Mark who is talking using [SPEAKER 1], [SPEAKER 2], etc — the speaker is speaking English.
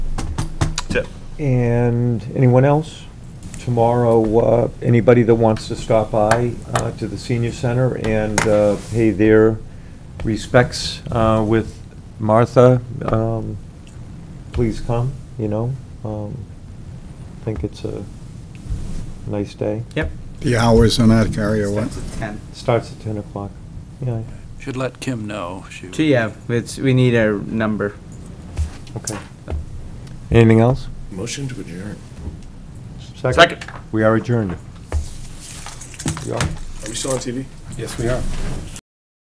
[SPEAKER 1] And anyone else? Tomorrow, uh, anybody that wants to stop by uh, to the senior center and uh, pay their respects uh, with Martha, um, please come, you know? Um, I think it's a nice day.
[SPEAKER 2] Yep.
[SPEAKER 3] The hours on that carry or what?
[SPEAKER 2] Starts at 10.
[SPEAKER 1] Starts at 10 o'clock. Yeah,
[SPEAKER 4] Should let Kim know. She
[SPEAKER 2] So, yeah, it's, we need a number.
[SPEAKER 1] okay. Anything else?
[SPEAKER 5] Motion to adjourn.
[SPEAKER 1] Second. We are adjourned. We are.
[SPEAKER 5] Are we still on TV?
[SPEAKER 4] Yes, we are.